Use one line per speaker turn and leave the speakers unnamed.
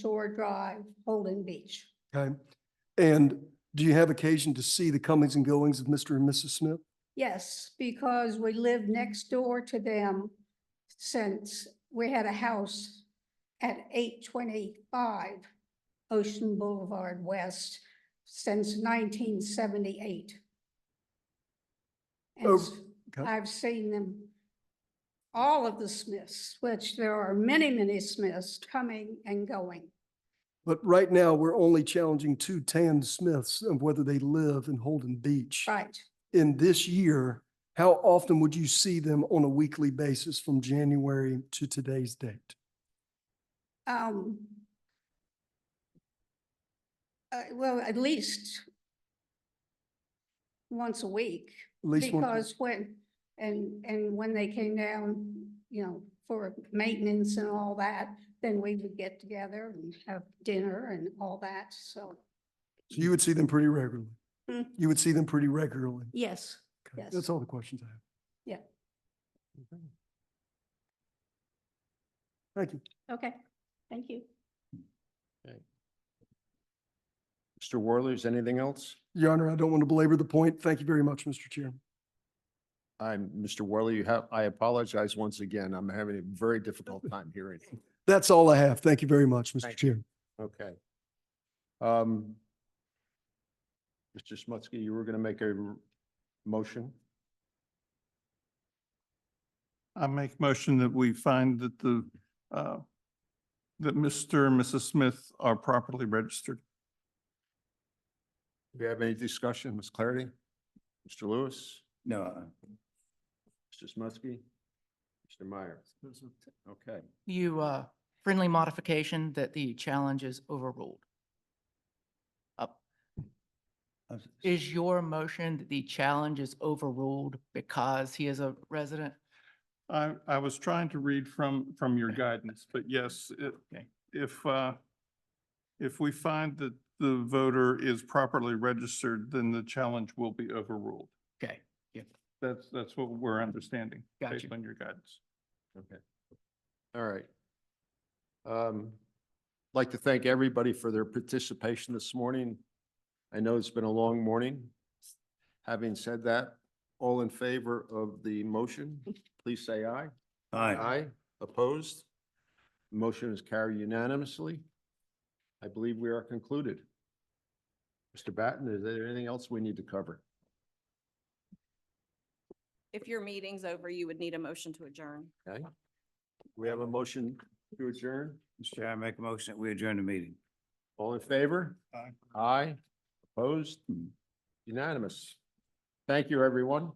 Shore Drive, Holden Beach.
Okay. And do you have occasion to see the comings and goings of Mr. and Mrs. Smith?
Yes, because we lived next door to them since we had a house at eight twenty-five Ocean Boulevard West since nineteen seventy-eight.
Oh,
And s-
okay.
I've seen them, all of the Smiths, which there are many, many Smiths coming and going.
But right now, we're only challenging two Tan Smiths of whether they live in Holden Beach.
Right,
In this year, how often would you see them on a weekly basis from January to today's date?
um. uh, well, at least once a week,
At least one.
because when, and, and when they came down, you know, for maintenance and all that, then we would get together and have dinner and all that, so,
So you would see them pretty regularly.
Hmm.
You would see them pretty regularly.
yes.
Okay,
Yes.
That's all the questions I have.
Yeah.
Okay. Thank you.
Okay, thank you.
Mr. Worley, is anything else?
Your Honor, I don't want to belabor the point. Thank you very much, Mr. Chair.
I'm, Mr. Worley, you have, I apologize once again. I'm having a very difficult time hearing. you.
That's all I have. Thank you very much, Mr.
Thank
Chair.
Okay. Um, Mr. Smutsky, you were going to make a r- motion?
I make motion that we find that the, uh, that Mr. and Mrs. Smith are properly registered.
Do you have any discussion, Ms. Clarity? Mr. Lewis?
No.
Mr. Smutsky? Mr. Meyer? Okay.
You, uh, friendly modification that the challenge is overruled. Uh, Is your motion that the challenge is overruled because he is a resident?
I, I was trying to read from, from your guidance, but yes, it- if, uh, if we find that the voter is properly registered, then the challenge will be overruled.
Okay, yeah,
That's, that's what we're understanding based
Gotcha.
on your guidance.
Okay. All right. Um, like to thank everybody for their participation this morning. I know it's been a long morning. Having said that, all in favor of the motion, please say aye.
Aye.
Opposed? Motion is carried unanimously. I believe we are concluded. Mr. Batten, is there anything else we need to cover?
If your meeting's over, you would need a motion to adjourn.
Okay. We have a motion to adjourn.
Mr. Chair, I make a motion that we adjourn the meeting.
All in favor?
Aye.
Aye. Opposed? Unanimous. Thank you, everyone.